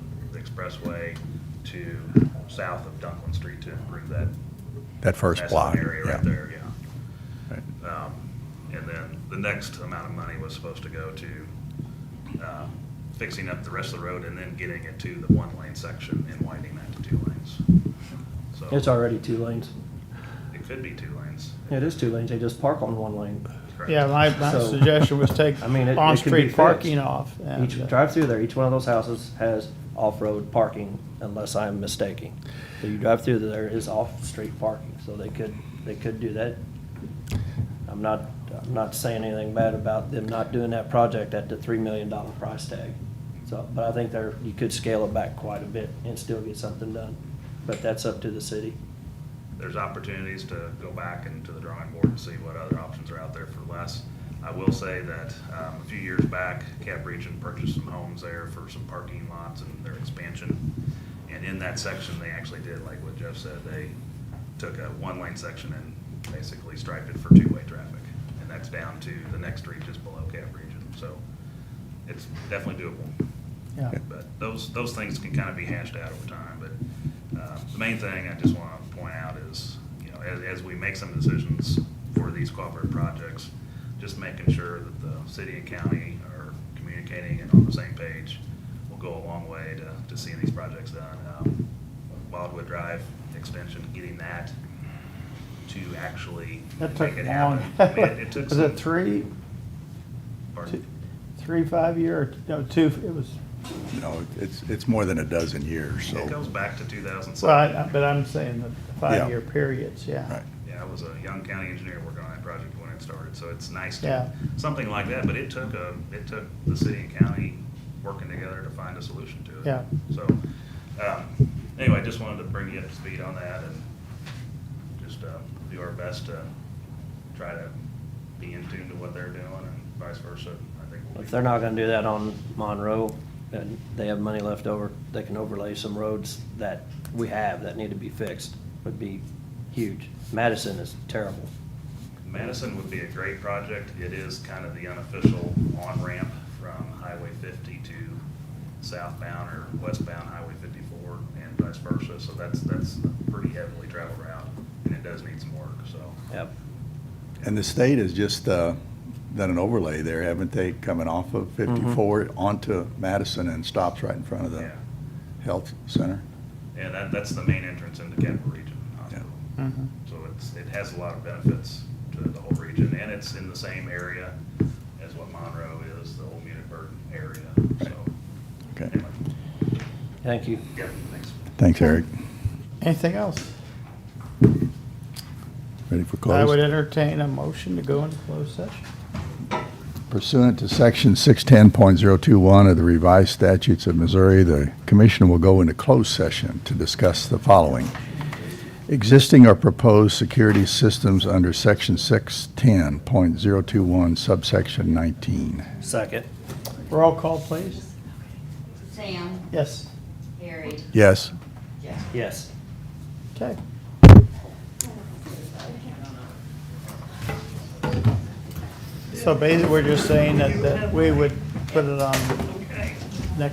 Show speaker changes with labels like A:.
A: Expressway to south of Dunklin Street to improve that.
B: That first
A: that's
B: block.
A: that Area
B: yeah.
A: right there, yeah.
B: Right.
A: Um, And then the next amount of money was supposed to go to uh, fixing up the rest of the road and then getting it to the one-lane section and widening that to two lanes. So
C: It's already two lanes.
A: It could be two lanes.
C: It is two lanes. They just park on one lane.
A: correct?
D: Yeah, my, my
C: So-
D: suggestion was take
C: I mean, it- it could be
D: on-street
C: fixed.
D: parking off. and,
C: Each
D: uh,
C: drive through there, each one of those houses has off-road parking unless I'm mistaken. So you drive through there is off-street parking, so they could, they could do that. I'm not, I'm not saying anything bad about them not doing that project at the three million dollar price tag. So, but I think there, you could scale it back quite a bit and still get something done. But that's up to the city.
A: There's opportunities to go back and to the drawing board and see what other options are out there for less. I will say that um, a few years back, Cap Region purchased some homes there for some parking lots and their expansion. And in that section, they actually did, like what Jeff said, they took a one-lane section and basically striped it for two-way traffic. And that's down to the next street just below Cap Region, so it's definitely doable.
D: Yeah.
A: But those, those things can kind of be hashed out over time, but uh, the main thing I just want to point out is, you know, as, as we make some decisions for these cooperative projects, just making sure that the city and county are communicating and on the same page will go a long way to, to seeing these projects done. Um, Wildwood Drive extension, getting that to actually
D: That took
A: make it
D: long.
A: happen. I mean, It took
D: Was
A: some.
D: it three,
A: pardon?
D: two, three, five year, or, no, two, it was,
B: You know, it's, it's more than a dozen years,
A: It goes
B: so.
A: back to two thousand
D: well,
A: seven.
D: I- I- but I'm saying the five-year periods, yeah.
B: Right.
A: Yeah, I was a young county engineer working on that project when it started, so it's nice
D: Yeah.
A: to, something like that, but it took a, it took the city and county working together to find a solution to it.
D: Yeah.
A: So, um, anyway, I just wanted to bring you up to speed on that and just, uh, do our best to try to be in tune to what they're doing and vice versa. I think we'll be-
C: If they're not gonna do that on Monroe, and they have money left over, they can overlay some roads that we have that need to be fixed, would be huge. Madison is terrible.
A: Madison would be a great project. It is kind of the unofficial on-ramp from Highway 50 to southbound or westbound Highway 54 and vice versa. So that's, that's a pretty heavily traveled route and it does need some work, so.
C: Yep.
B: And the state has just uh, done an overlay there, haven't they, coming off of
D: Mm-hmm.
B: 54 onto Madison and stops right in front of the
A: Yeah.
B: health center?
A: And that, that's the main entrance into Capital Region Hospital.
D: Mhm.
A: So it's, it has a lot of benefits to the whole region and it's in the same area as what Monroe is, the old Munisburg area, so.
B: Okay,
A: anyway,
C: Thank you.
A: Yeah, thanks.
B: thanks, Eric.
D: Anything else?
B: Ready for
D: I would
B: close?
D: entertain a motion to go into closed session.
B: Pursuant to Section 610.021 of the revised statutes of Missouri, the commission will go into closed session to discuss the following. Existing or proposed security systems under Section 610.021 subsection 19.
C: Second.
D: Roll call, please.
E: Sam,
D: Yes,
E: Harry,
B: Yes?
E: Jeff.
C: Yes.
D: okay. So basically, we're just saying that, that we would put it on